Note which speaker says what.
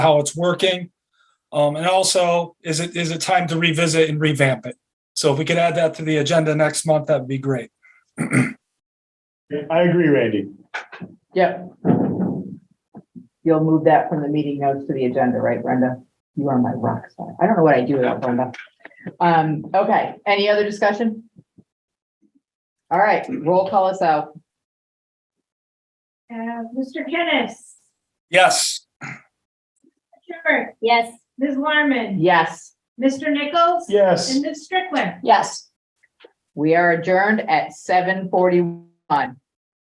Speaker 1: how it's working. Um, and also, is it, is it time to revisit and revamp it? So if we could add that to the agenda next month, that'd be great.
Speaker 2: I agree, Randy.
Speaker 3: Yep. You'll move that from the meeting notes to the agenda, right, Brenda? You are my rock star. I don't know what I do without Brenda. Um, okay, any other discussion? All right, roll call us out.
Speaker 4: Uh, Mr. Kenneth,
Speaker 1: Yes,
Speaker 4: Sure.
Speaker 5: Yes.
Speaker 4: Ms. Larman,
Speaker 3: Yes,
Speaker 4: Mr. Nichols?
Speaker 2: Yes.
Speaker 4: And Ms. Strickland?
Speaker 5: Yes.
Speaker 3: we are adjourned at seven forty-one.